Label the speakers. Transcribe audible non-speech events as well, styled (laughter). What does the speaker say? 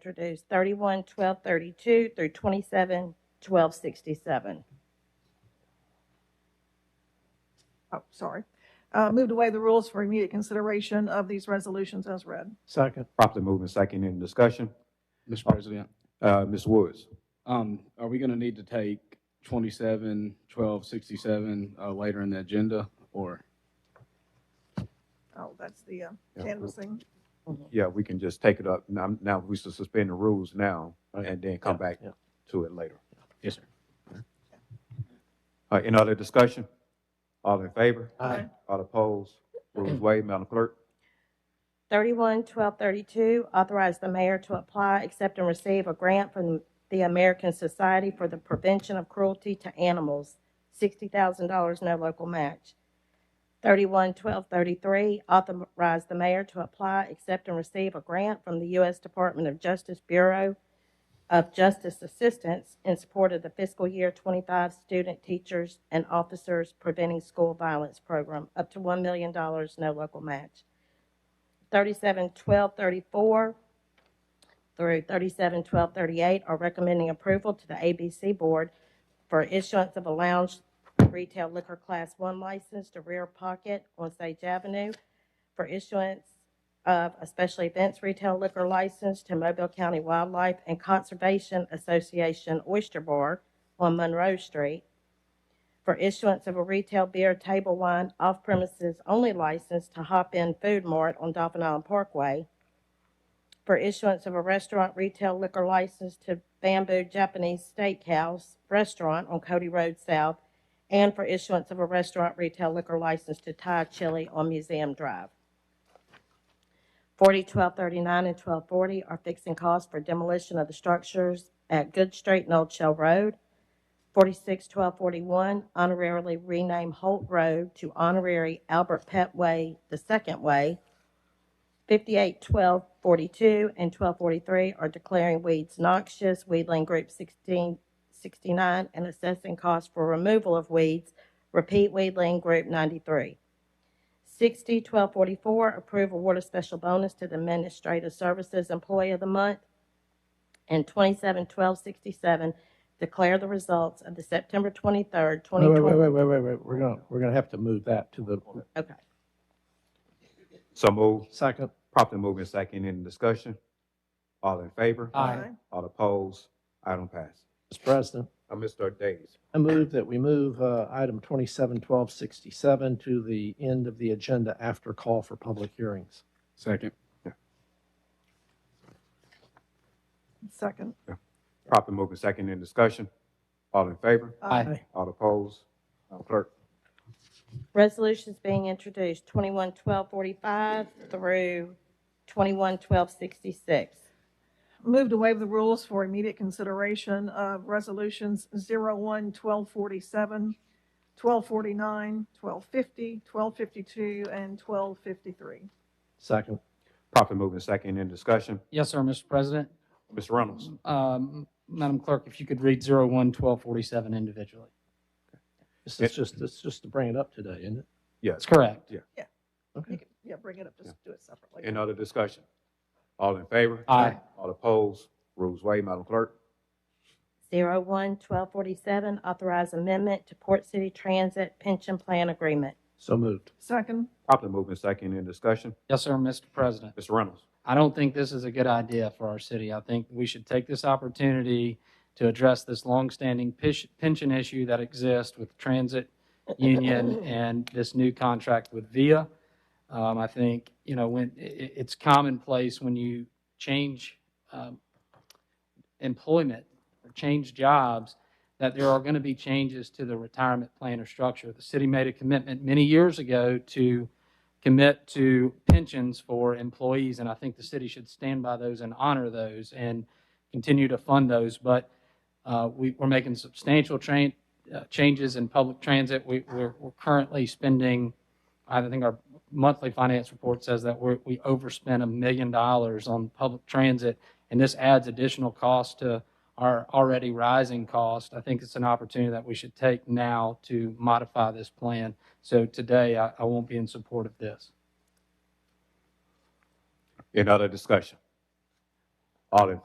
Speaker 1: introduced 31, 12, 32 through 27, 12, 67.
Speaker 2: Oh, sorry. Uh, Moved away the rules for immediate consideration of these resolutions as read.
Speaker 3: Second.
Speaker 4: Properly moving second in discussion.
Speaker 5: Mr. President,
Speaker 4: Uh, Ms. Woods,
Speaker 5: um, are we gonna need to take twenty-seven, twelve, sixty-seven, uh, later in the agenda? Or,
Speaker 2: Oh, that's the uh,
Speaker 4: Yeah.
Speaker 2: canvassing.
Speaker 4: yeah, we can just take it up. Now, now we should suspend the rules now and then come back
Speaker 3: Yeah.
Speaker 4: to it later.
Speaker 5: yes, sir.
Speaker 4: Uh, any other discussion? All in favor?
Speaker 2: Aye.
Speaker 4: All opposed? Rules
Speaker 2: (clears throat)
Speaker 4: waived. Madam Clerk?
Speaker 1: 31, 12, 32, authorize the mayor to apply, accept, and receive a grant from the American Society for the Prevention of Cruelty to Animals, $60,000, no local match. 31, 12, 33, authorize the mayor to apply, accept, and receive a grant from the U.S. Department of Justice Bureau of Justice Assistance in support of the fiscal year 25 Student Teachers and Officers Preventing School Violence Program, up to $1 million, no local match. 37, 12, 34 through 37, 12, 38 are recommending approval to the ABC Board for issuance of a lounge retail liquor Class 1 license to Rear Pocket on Sage Avenue for issuance of a special events retail liquor license to Mobile County Wildlife and Conservation Association Oyster Bar on Monroe Street for issuance of a retail beer table wine off premises only license to Hop In Food Mart on Dolphin Island Parkway, for issuance of a restaurant retail liquor license to Bamboo Japanese Steakhouse Restaurant on Cody Road South, and for issuance of a restaurant retail liquor license to Thai Chili on Museum Drive. 40, 12, 39, and 1240 are fixing costs for demolition of the structures at Good Street and Old Shell Road. 46, 1241, honorarily rename Holt Road to honorary Albert Pett Way, the second way. 58, 1242, and 1243 are declaring weeds noxious, weedling group 1669, and assessing costs for removal of weeds, repeat weedling group 93. 60, 1244, approve award of special bonus to the Administrative Services Employee of the Month. And 27, 1267, declare the results of the September 23rd,
Speaker 3: Wait, wait,
Speaker 1: 2020.
Speaker 3: wait, wait, wait, wait, wait. We're gonna, we're gonna have to move that to the
Speaker 1: Okay.
Speaker 4: So moved.
Speaker 3: second.
Speaker 4: Properly moving second in discussion. All in favor?
Speaker 2: Aye.
Speaker 4: All opposed? Item pass.
Speaker 3: Mr. President,
Speaker 4: Uh, Mr. Days,
Speaker 3: I move that we move, uh, item twenty-seven twelve sixty-seven to the end of the agenda after call for public hearings.
Speaker 5: Second,
Speaker 2: Second.
Speaker 4: properly moving second in discussion. All in favor?
Speaker 2: Aye.
Speaker 4: All opposed? Madam Clerk?
Speaker 1: Resolutions being introduced, 211245 through 211266.
Speaker 2: Moved away the rules for immediate consideration of resolutions 01, 1247, 1249, 1250, 1252, and 1253.
Speaker 3: Second.
Speaker 4: Properly moving second in discussion.
Speaker 6: Yes, sir, Mr. President.
Speaker 4: Ms. Reynolds?
Speaker 6: Um, Madam Clerk, if you could read 01-1247 individually.
Speaker 3: This is just, this is just to bring it up today, isn't it?
Speaker 4: Yes.
Speaker 6: That's correct.
Speaker 2: You
Speaker 3: Okay.
Speaker 2: could- Yeah, bring it up, just do it separately.
Speaker 4: Any other discussion? All in favor?
Speaker 6: Aye.
Speaker 4: All opposed? Rules waived. Madam Clerk?
Speaker 1: 011247, authorize amendment to Port City Transit Pension Plan Agreement.
Speaker 3: So moved.
Speaker 2: Second.
Speaker 4: Properly moving second in discussion.
Speaker 6: Yes, sir, Mr. President.
Speaker 4: Ms. Reynolds?
Speaker 6: I don't think this is a good idea for our city. I think we should take this opportunity to address this longstanding pish- pension issue that exists with transit union and this new contract with VIA. Um, I think, you know, when, i- i it's commonplace when you change, um, employment or change jobs, that there are going to be changes to the retirement plan or structure. The city made a commitment many years ago to commit to pensions for employees, and I think the city should stand by those and honor those and continue to fund those. But uh, we, we're making substantial train, uh, changes in public transit. We, we're, we're currently spending, I think our monthly finance report says that we're, we overspent a million dollars on public transit, and this adds additional cost to our already rising cost. I think it's an opportunity that we should take now to modify this plan. So today, I, I won't be in support of this.
Speaker 4: Any other discussion? All in